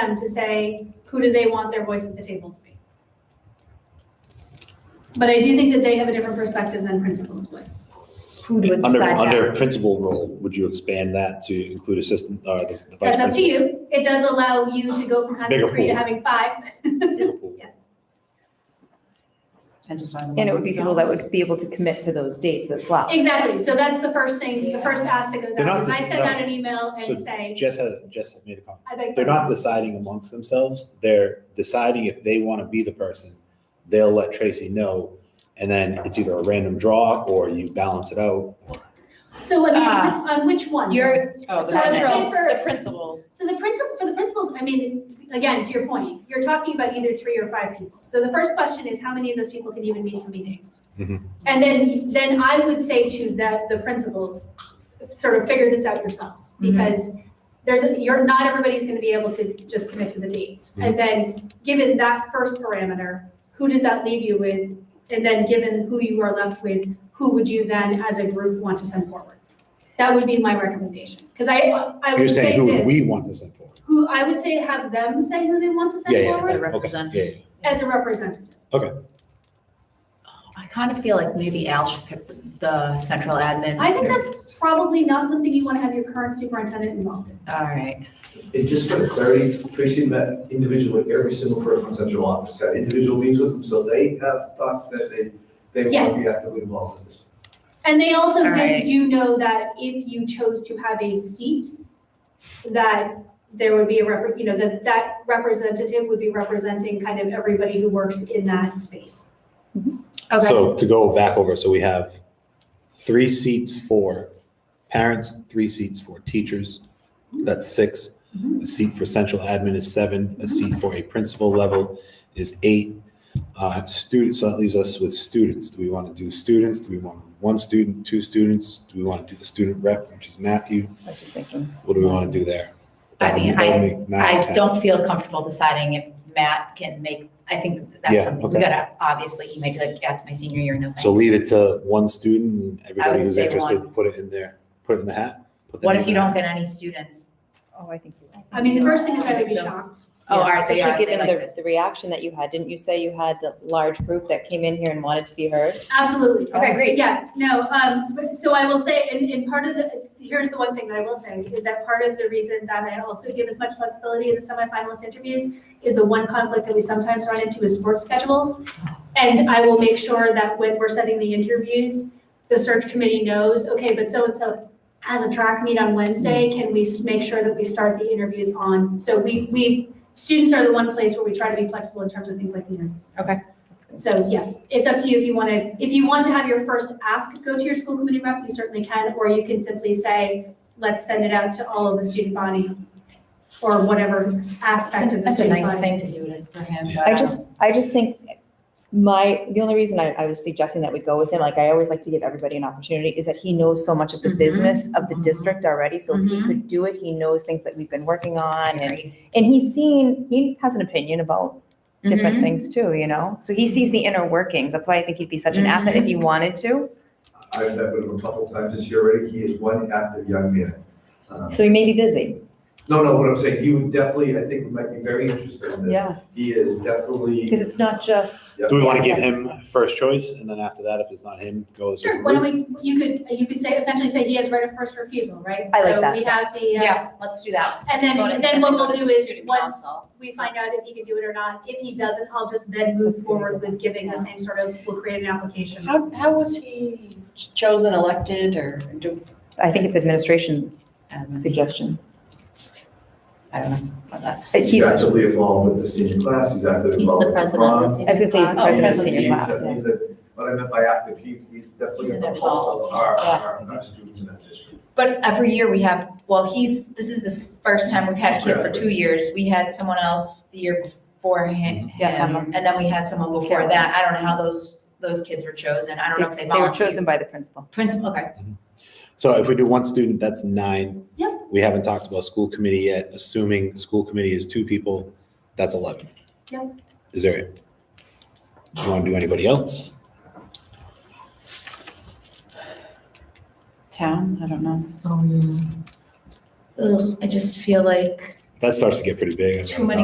them to say, who do they want their voice at the table to be? But I do think that they have a different perspective than principals would. Who would Under, decide under that? principal role, would you expand that to include assistant, or the the vice That's principal? up to you. It does allow you to go from having bigger three to pool. having five. Yes. And decide among And it would be people that themselves. would be able to commit to those dates as well. Exactly. So that's the first thing, the first ask that goes They're out. not is I just- send no. out an email So- and say, Jess has, Jess has made a comment. I'd like. They're not deciding amongst themselves. They're deciding if they want to be the person. They'll let Tracy know, and then it's either a random draw or you balance it out. So what, Ah. on which one? You're, Oh, So the So I'd I'd central. say say for- the principals, So the principal, for the principals, I mean, again, to your point, you're talking about either three or five people. So the first question is how many of those people can even meet in meetings? Mhm. And then, then I would say to that, the principals, sort of figure this out yourselves. Mhm. Because there's, a- you're, not everybody's going to be able to just commit to the dates. And then, given that first parameter, who does that leave you with? And then, given who you are left with, who would you then, as a group, want to send forward? That would be my recommendation. Because I, I You're would say saying who would this we want to send for? who I would say have them say who they want to send Yeah, yeah, forward exactly. Okay, yeah, yeah, yeah. as a representative. I kind of feel like maybe Al should pick the central admin. I think that's probably not something you want to have your current superintendent involved in. All right. And just for clarity, Tracy met individually with every single person in central office, had individual meetings with them, so they have thoughts that they, they want to be actively involved in this. And they also All did right. do know that if you chose to have a seat, that there would be a rep, you know, that that representative would be representing kind of everybody who works in that space. Mm-hmm. Okay. So to go back over, so we have three seats for parents, three seats for teachers. That's six. Mm-hmm. A seat for central admin is seven. A seat for a principal level is eight. Uh, Students, so that leaves us with students. Do we want to do students? Do we want one student, two students? Do we want to do the student rep, which is Matthew? I was just thinking. What do we want to do there? I mean, That would make nine, I ten. don't feel comfortable deciding if Matt can make, I think Yeah, that's something we okay. gotta, obviously, he might be like, yeah, it's my senior year, no thanks. So leave it to one student and I everybody would who's say interested, one. put it in there, put it in the hat. put their What name if in you the hat. don't get any students? Oh, I think you. I mean, the first thing is I would be So- shocked. Oh, Yeah, are they, are Especially they given like the, this? the reaction that you had. Didn't you say you had the large group that came in here and wanted to be heard? Absolutely. Okay, great. Yeah, no, um, but- so I will say, and, and part of the, here's the one thing that I will say, is that part of the reason that I also give as much flexibility in the semifinalist interviews is the one conflict that we sometimes run into is sports schedules. And I will make sure that when we're setting the interviews, the search committee knows, okay, but so-and-so has a track meet on Mm. Wednesday, can we s- make sure that we start the interviews on? So we, we, students are the one place where we try to be flexible in terms of things like the interviews. That's good. So yes, it's up to you if you want to, if you want to have your first ask go to your school committee rep, you certainly can, or you can simply say, let's send it out to all of the student body or whatever aspect of the That's a student nice body. thing to do to- for him. but, I um, just, I just think my, the only reason I, I was suggesting that we go with him, like I always like to give everybody an opportunity, is that he knows so much of the Mhm. business of the Mhm. district already, so if he Mhm. could do it, he knows things that we've been working on, and, Agreed. and he's seen, he has an opinion about different Mhm. things too, you know? So he sees the inner workings, that's why I think he'd be such an asset if he Mm-hmm. wanted to, I've met with him a couple times this year already, he is one active young man. Uh, so he may be busy. No, no, what I'm saying, he would definitely, I think, might be very interested in this. He is definitely. Because it's not just, Yep. Do we want to Yeah, give him that's- first choice, and then after that, if it's not him, go with a Sure, different why route? don't we, you could, you could say, essentially say he has right of first refusal, right? I like that. So we have the, uh, Yeah, let's do that. and then, Vote then it. what we'll Go to do is, student once council. we find out if he can do it or not, if he doesn't, I'll just then move forward with giving the same sort of, we'll create an application. how, how was he chosen, elected, or do, I think it's administration Um, suggestion. I don't know about that. He's He's, I actively involved with the senior class, he's actively He's involved the with the president of prom. the was gonna say he's the Oh, president of he's- senior he's- class, yeah. he's a- What I meant by active, he, he's definitely He's an a pulse of adult. our, Yeah. our, our students in that district. But every year we have, well, he's, this is the s- first time we've had him for two years. We had someone else the year before Mm-hmm. him. Yeah, him, And then we had someone before that. I don't know how those, those kids were chosen. I don't know if they They were volunteered. chosen by the principal. Principal, okay. So if we do one student, that's nine. Yep. We haven't talked about school committee yet, assuming school committee is two people, that's eleven. Yep. Is there, do you want to do anybody else? Town, I don't know. Ugh, I just feel like that starts to get pretty big. I've got Too many